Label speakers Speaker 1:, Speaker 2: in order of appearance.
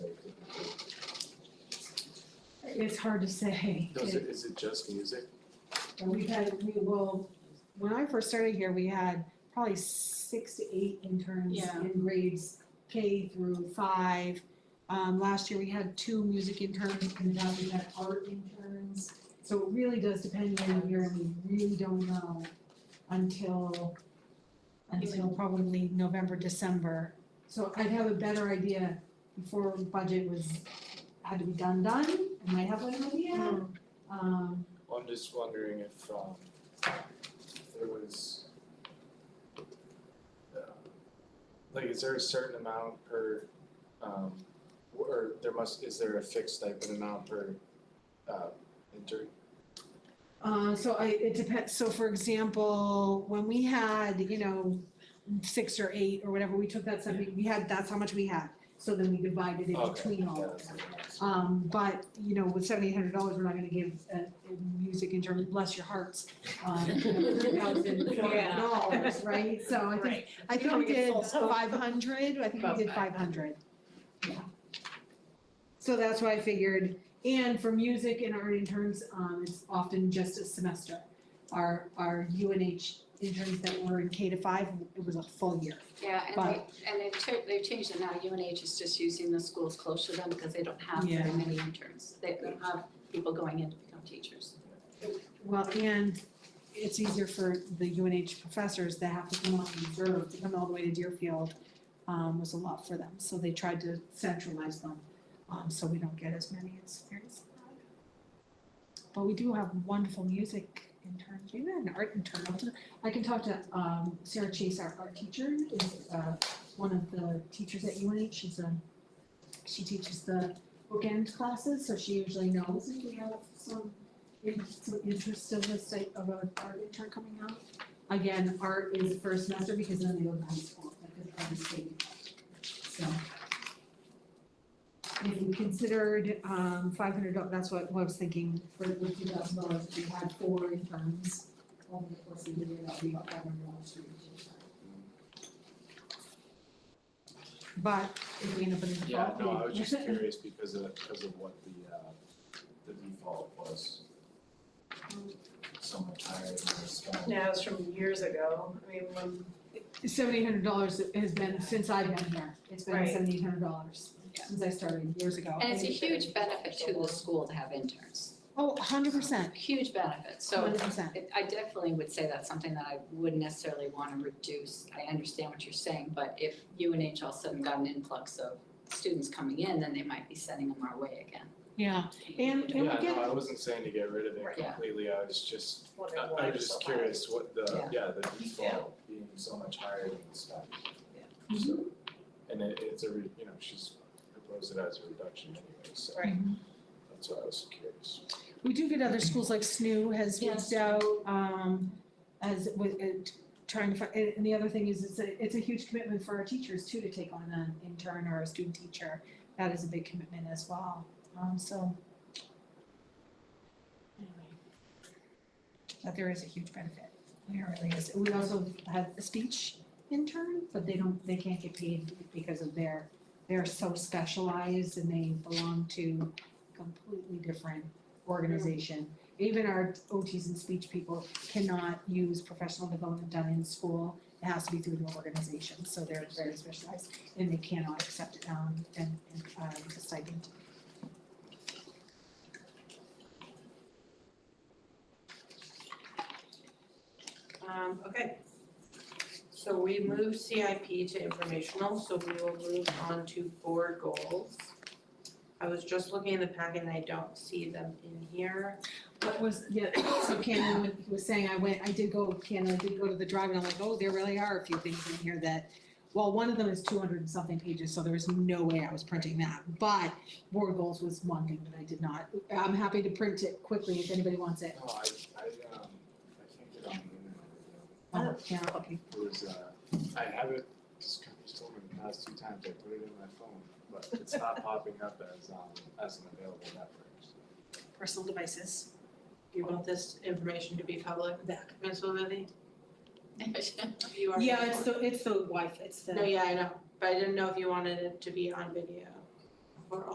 Speaker 1: it's hard to say.
Speaker 2: Does it, is it just music?
Speaker 1: And we had, we will, when I first started here, we had probably six to eight interns
Speaker 3: Yeah.
Speaker 1: in grades K through five. Um, last year, we had two music interns, and now we had art interns. So it really does depend on the year, and we really don't know until, until probably November, December. So I'd have a better idea before budget was, had to be done, done, I might have an
Speaker 4: Mm-hmm.
Speaker 1: idea. Um,
Speaker 2: Well, I'm just wondering if, um, if there was, uh, like, is there a certain amount per, um, or there must, is there a fixed stipend amount per, uh, intern?
Speaker 1: Uh, so I, it depends, so for example, when we had, you know, six or eight or whatever, we took that seventy, we had, that's how much we had. So then we divided it
Speaker 2: Okay,
Speaker 1: between all
Speaker 2: yeah,
Speaker 1: of
Speaker 2: that's
Speaker 1: them.
Speaker 2: what it is.
Speaker 1: Um, but, you know, with seventy-eight hundred dollars, we're not gonna give, uh, in music in German, bless your hearts, um, three thousand four hundred dollars, right? So I think,
Speaker 3: Right.
Speaker 1: I
Speaker 3: You
Speaker 1: think
Speaker 3: don't
Speaker 1: we
Speaker 3: get
Speaker 1: did
Speaker 3: full sum.
Speaker 1: five hundred, I think we
Speaker 3: About
Speaker 1: did five hundred.
Speaker 3: five.
Speaker 1: Yeah. So that's why I figured, and for music and art interns, um, it's often just a semester. Our, our UNH interns that were in K to five, it was a full year.
Speaker 4: Yeah, and they,
Speaker 1: But-
Speaker 4: and they've tur- they've changed it now, UNH is just using the schools close to them because they don't have
Speaker 1: Yeah.
Speaker 4: very many interns. They don't have people going in to become teachers.
Speaker 1: Well, and it's easier for the UNH professors that have to come out and observe, to come all the way to Deerfield, um, was a lot for them, so they tried to centralize them, um, so we don't get as many as there is. But we do have wonderful music interns, we had an art intern, I'll t- I can talk to, um, Sarah Chase, our art teacher, is, uh, one of the teachers at UNH, she's a, she teaches the bookend classes, so she usually knows if we have some in- some interest of this type of a art intern coming out. Again, art is first semester because then they go to high school, like the art is state. So. And we considered um five hundred, that's what I was thinking, for the two thousand dollars, we had four interns over the course of the year, that would be about five hundred dollars for each intern. But if we end up in a default.
Speaker 2: Yeah, no, I was
Speaker 1: we-
Speaker 2: just curious because of, because of what the, uh, the default was. So much higher than the spend.
Speaker 3: Yeah, it was from years ago, I mean, when,
Speaker 1: Seventeen hundred dollars has been, since I've been here, it's been
Speaker 3: Right.
Speaker 1: seventeen hundred dollars
Speaker 4: Yeah.
Speaker 1: since I started years ago.
Speaker 4: And it's a huge benefit to the school to have interns,
Speaker 1: Oh, hundred percent,
Speaker 4: huge benefit. So
Speaker 1: hundred percent.
Speaker 4: it- I definitely would say that's something that I wouldn't necessarily want to reduce. I understand what you're saying, but if UNH all of a sudden got an influx of students coming in, then they might be sending them our way again.
Speaker 1: Yeah, and and
Speaker 2: Yeah,
Speaker 1: we
Speaker 2: no,
Speaker 1: get,
Speaker 2: I wasn't saying to get rid of it
Speaker 3: Right.
Speaker 4: Yeah.
Speaker 2: completely, I was just,
Speaker 3: when
Speaker 2: I
Speaker 3: it
Speaker 2: I
Speaker 3: was
Speaker 2: was
Speaker 3: so
Speaker 2: just
Speaker 3: high.
Speaker 2: curious what the,
Speaker 4: Yeah.
Speaker 2: yeah, the default being so much higher than the spec.
Speaker 3: Yeah.
Speaker 2: So, and it it's a, re- you know, she's proposed it as a reduction anyway, so
Speaker 3: Right.
Speaker 2: that's why I was curious.
Speaker 1: we do get other schools like SNU has
Speaker 4: Yes.
Speaker 1: reached out, um, as with, uh, trying to find, and and the other thing is, it's a, it's a huge commitment for our teachers too, to take on an intern or a student teacher. That is a big commitment as well, um, so. anyway, But there is a huge benefit, there really is. We also had a speech intern, but they don't, they can't get paid because of their, they're so specialized and they belong to completely different organization. Even our OTs and speech people cannot use professional development done in school. It has to be through the organization, so they're very specialized and they cannot accept um and and uh the stipend.
Speaker 3: Um, okay. So we moved CIP to informational, so we will move on to board goals. I was just looking in the packet and I don't see them in here.
Speaker 1: What was, yeah, so Canon wa- was saying, I went, I did go, Canon, I did go to the drive and I'm like, oh, there really are a few things in here that, well, one of them is two hundred and something pages, so there was no way I was printing that, but board goals was one thing that I did not. I'm happy to print it quickly if anybody wants it.
Speaker 2: No, I I um I can't get on the internet right
Speaker 1: Oh, yeah, okay.
Speaker 2: now. It was uh, I have it, just kind of told me the past two times, I put it in my phone, but it's not popping up as um as an available network.
Speaker 5: personal devices.
Speaker 3: Do you want this information to be public, Ms. Willoughby? You are.
Speaker 5: Yeah, it's the, it's the wife, it's the.
Speaker 3: No, yeah, I know, but I didn't know if you wanted it to be on video.